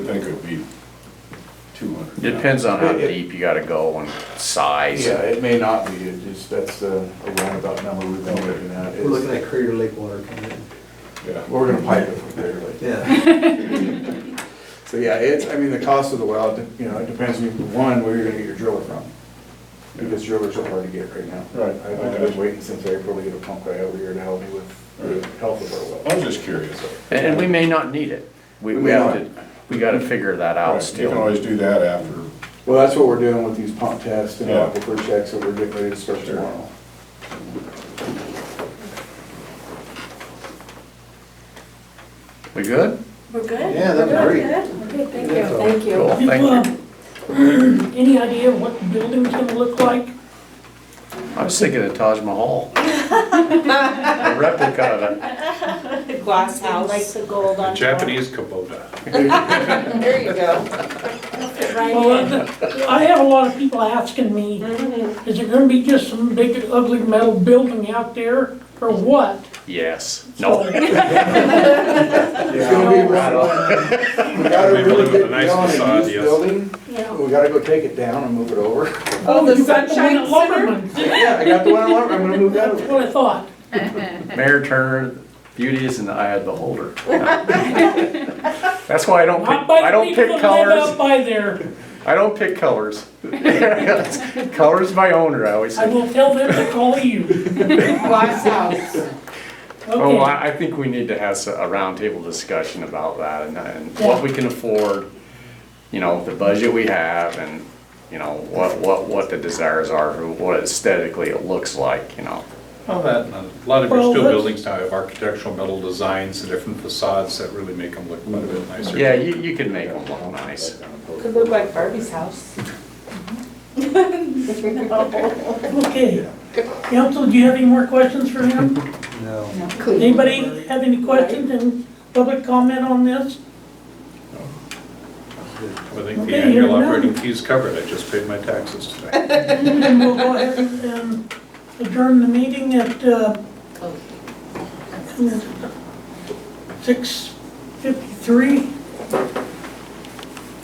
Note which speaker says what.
Speaker 1: I think it'd be two hundred.
Speaker 2: Depends on how
Speaker 3: It- it-
Speaker 2: deep you gotta go and size.
Speaker 3: Yeah, it may not be, it just, that's uh, a roundabout number we've been looking at.
Speaker 4: We're looking at Crater Lake water coming in.
Speaker 1: Yeah.
Speaker 3: We're gonna pipe it from there, like.
Speaker 4: Yeah,
Speaker 3: So, yeah, it's, I mean, the cost of the well, it de- you know, it depends, on, one, where you're gonna get your driller from. Because drillers are hard to get right now.
Speaker 1: Right.
Speaker 3: I- I've been waiting since April to get a pump guy over here to help me with the health of
Speaker 1: I
Speaker 3: our
Speaker 1: was
Speaker 3: well.
Speaker 1: just curious.
Speaker 2: And and we may not need it. We, we
Speaker 3: We
Speaker 2: have
Speaker 3: might.
Speaker 2: to, we gotta figure that
Speaker 1: Right,
Speaker 2: out
Speaker 1: You can
Speaker 2: still.
Speaker 1: always do that after,
Speaker 3: Well, that's what we're doing with these pump tests and
Speaker 1: Yeah.
Speaker 3: aquifer checks that we're getting ready to start
Speaker 1: Sure.
Speaker 3: tomorrow.
Speaker 2: We good?
Speaker 5: We're good?
Speaker 4: Yeah, that's
Speaker 5: We're
Speaker 4: great.
Speaker 5: good? Okay, thank you. Thank
Speaker 4: Yeah.
Speaker 2: Cool, thank you.
Speaker 6: Uh, Any idea what the building's gonna look like?
Speaker 2: I was thinking of Taj Mahal. A replica of it.
Speaker 7: glass house.
Speaker 5: Like the gold on top.
Speaker 8: Japanese Kubota.
Speaker 7: There you go.
Speaker 5: Right
Speaker 6: Well,
Speaker 5: in.
Speaker 6: the- I have a lot of people asking me,
Speaker 7: Mm-hmm.
Speaker 6: is it gonna be just some big ugly metal building out there or what?
Speaker 2: Yes. No.
Speaker 3: It's gonna be
Speaker 2: Right
Speaker 3: right We gotta
Speaker 8: Maybe
Speaker 3: really
Speaker 8: with a
Speaker 3: get
Speaker 8: nice
Speaker 3: down
Speaker 8: facade,
Speaker 3: and use
Speaker 8: yes.
Speaker 3: building,
Speaker 6: Yeah.
Speaker 3: we gotta go take it down and move it over.
Speaker 7: Oh, the
Speaker 6: you got the one
Speaker 7: Sunshine
Speaker 6: at
Speaker 7: Center?
Speaker 6: Lumberman.
Speaker 3: Yeah, I got the one I want, I'm gonna move that
Speaker 6: That's
Speaker 3: over.
Speaker 6: what I thought.
Speaker 2: Mayor Turner, beauty is in the eye of the beholder. That's why I don't
Speaker 6: Not
Speaker 2: pick,
Speaker 6: by
Speaker 2: I
Speaker 6: the
Speaker 2: don't
Speaker 6: people
Speaker 2: pick
Speaker 6: that live out
Speaker 2: colors.
Speaker 6: by there.
Speaker 2: I don't pick colors. Color's my owner, I always
Speaker 6: I
Speaker 2: say.
Speaker 6: will tell them to call you.
Speaker 7: Glass house.
Speaker 2: Oh,
Speaker 6: Okay,
Speaker 2: I, I think we need to have s- a roundtable discussion about that and, and what we can afford, you know, the budget we have and, you know, what, what, what the desires are, for what aesthetically it looks like, you know.
Speaker 8: Well, that, and a lot of your
Speaker 6: Well,
Speaker 8: steel
Speaker 6: that's-
Speaker 8: buildings now have architectural metal designs and different facades that really make them look quite a bit nicer.
Speaker 2: Yeah, you, you can make them look nice.
Speaker 7: Could look like Barbie's house.
Speaker 6: okay. Council, do you have any more questions for him?
Speaker 4: no.
Speaker 6: Anybody have any questions and public comment on this?
Speaker 8: I think the
Speaker 6: Okay,
Speaker 8: annual
Speaker 6: you're done.
Speaker 8: operating fees covered, I just paid my taxes today.
Speaker 6: And we'll go ahead and um, adjourn the meeting at uh, 6:53.